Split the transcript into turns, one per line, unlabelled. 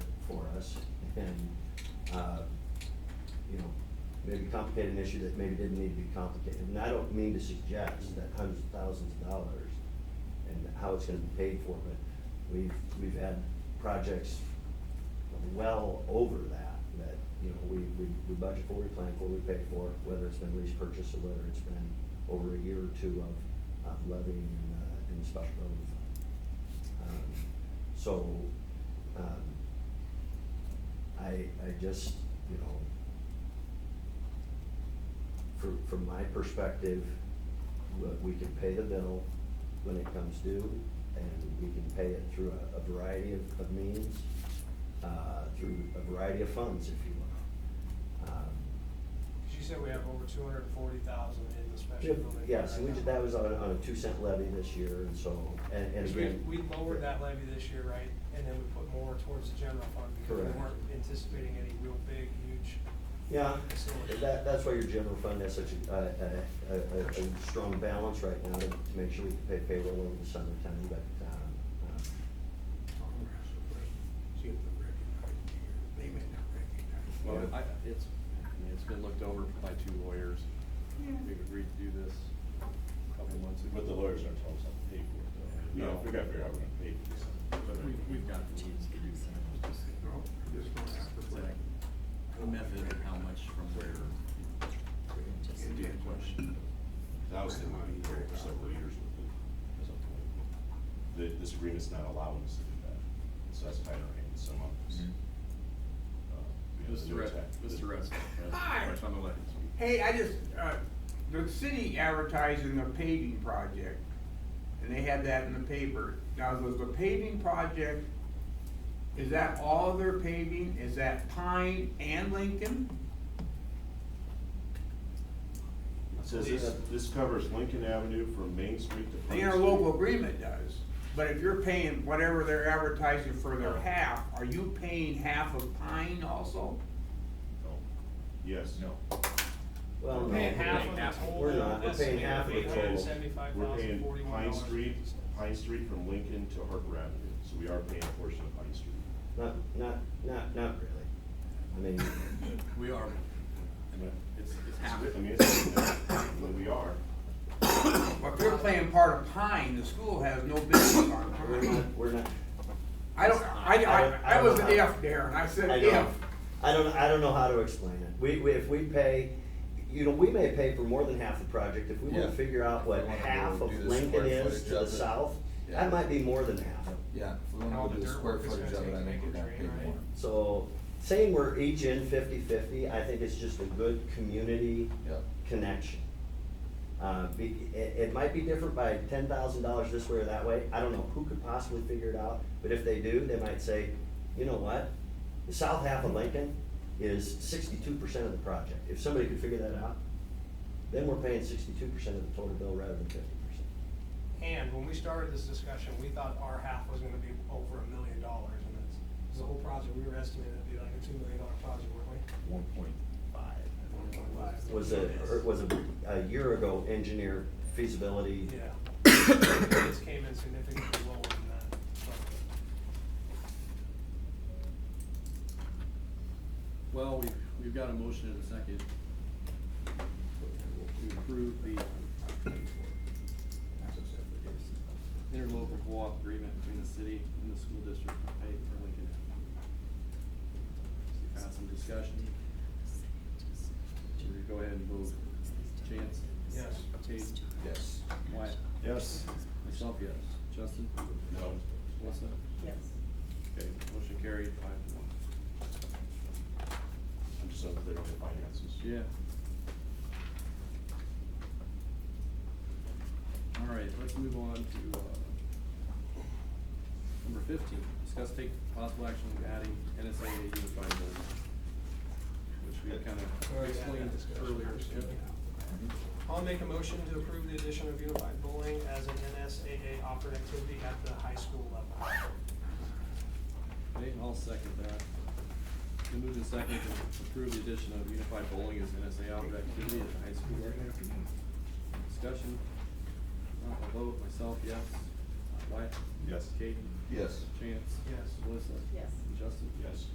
for us and, uh, you know, maybe complicate an issue that maybe didn't need to be complicated. And I don't mean to suggest that hundreds of thousands of dollars and how it's gonna be paid for, but we've, we've had projects well over that, that, you know, we, we, we budget for, we plan for, we pay for, whether it's been lease purchase or whether it's been over a year or two of, of levying in, uh, in the special revenue fund. Um, So, um, I, I just, you know, from, from my perspective, we- we can pay the bill when it comes due, and we can pay it through a, a variety of, of means, uh, through a variety of funds, if you will. Um,
She said we have over two hundred and forty thousand in the special building.
Yes,
fund
we
right
did,
now.
that was on, a- on a two cent levy this year, and so, and, and
Because we,
again.
we lowered that levy this year, right, and then we put more towards the general fund because
Correct.
we weren't anticipating any real big, huge.
Yeah,
facility.
that, that's why your general fund has such a, a, a, a, a strong balance right now to to make sure we can pay payroll over the summertime, but, um, uh,
See if they recognize it here. They may not recognize it.
Well, I, it's, I mean, it's been looked over by two lawyers. We've agreed to do this a couple months ago.
But the lawyers aren't telling us how to pay for it, though. You know,
No.
we gotta figure out we're gonna pay for this.
But we, we've got the means to do that.
No, I'm just gonna have to put it.
The method and how much from where.
Just do the question.
That was the money for several years with it. That's up to it. The, this agreement's not allowing us to do that, so that's kind of in some of us.
Mm-hmm.
Uh, we have the
Mr.
new
Rest,
tech-
Mr. Rest. uh,
Hi.
Rest on the left.
Hey, I just, uh, the city advertising a paving project, and they had that in the paper. Now, was the paving project, is that all their paving? Is that Pine and Lincoln?
It says this, this covers Lincoln Avenue from Main Street to.
The
Front
interlocal
Street.
agreement does, but if you're paying whatever they're advertising for their half, are you paying half of Pine also?
No. Yes.
No.
well.
We're
no,
paying
we're
half
paying
of
half.
the
We're
total
not, we're paying
estimated
half
of
of
eight
the
hundred and
total.
seventy-five
We're
thousand,
paying
forty-one
Pine
dollars.
Street, Pine Street from Lincoln to Harper Avenue, so we are paying a portion of Pine Street.
Not, not, not, not really. I mean,
We are, I mean, it's, it's happening.
I mean, it's, when we are,
Well, if you're playing part of Pine, the school has no business on
we're
Pine.
not, we're not,
I don't, I, I, I was an F there, and I said
I
if.
don't, I don't, I don't know how to explain it. We, we, if we pay, you know, we may pay for more than half the project, if we wanna
Yeah.
figure out what
If we wanna
half
go
of
do the
Lincoln
square
is
footage
to the
of it.
south,
Yeah.
that might be more than half.
Yeah, if we
And all
wanna do
the
the
dirt
square
work it's
footage
gonna
of it, I
take
think
to
we're
make it
gonna pay
drain, right?
more.
So saying we're each in 50-50, I think it's just a good community
Yep.
connection. Uh, be, it, it might be different by ten thousand dollars this way or that way, I don't know who could possibly figure it out, but if they do, they might say, you know what? The south half of Lincoln is sixty-two percent of the project, if somebody could figure that out, then we're paying sixty-two percent of the total bill rather than fifty percent.
And when we started this discussion, we thought our half was gonna be over a million dollars, and that's, 'cause the whole project, we were estimating it'd be like a two million dollar project, weren't we?
One point five.
Was a, or was a, a year ago engineer feasibility
Yeah. This came in significantly lower than that, so.
Well, we've, we've got a motion and a second. To approve the interlocal co-op agreement between the city and the school district to pay for Lincoln Avenue. Got some discussion? Should we go ahead and vote? Chance?
Yes.
Tate?
Yes.
Wyatt?
yes,
Myself, yes. Justin?
no,
Melissa?
Yes.
Okay, motion carried five to one.
I'm just unclear on the finances.
Yeah. All right, let's move on to, uh, number fifteen, discuss take possible action on adding NSA to unified building. Which we kind of
Already had that
explained
discussion.
earlier.
I'll make a motion to approve the addition of unified bowling as an NSAA offered activity at the high school level.
Okay, I'll second that. We move in second to approve the addition of unified bowling as NSA outdoor activity at the high school level. Discussion, Uh, I'll vote myself, yes. Wyatt?
Yes.
Kate?
Yes.
Chance?
Yes.
Melissa?
Yes.
Justin?
Yes.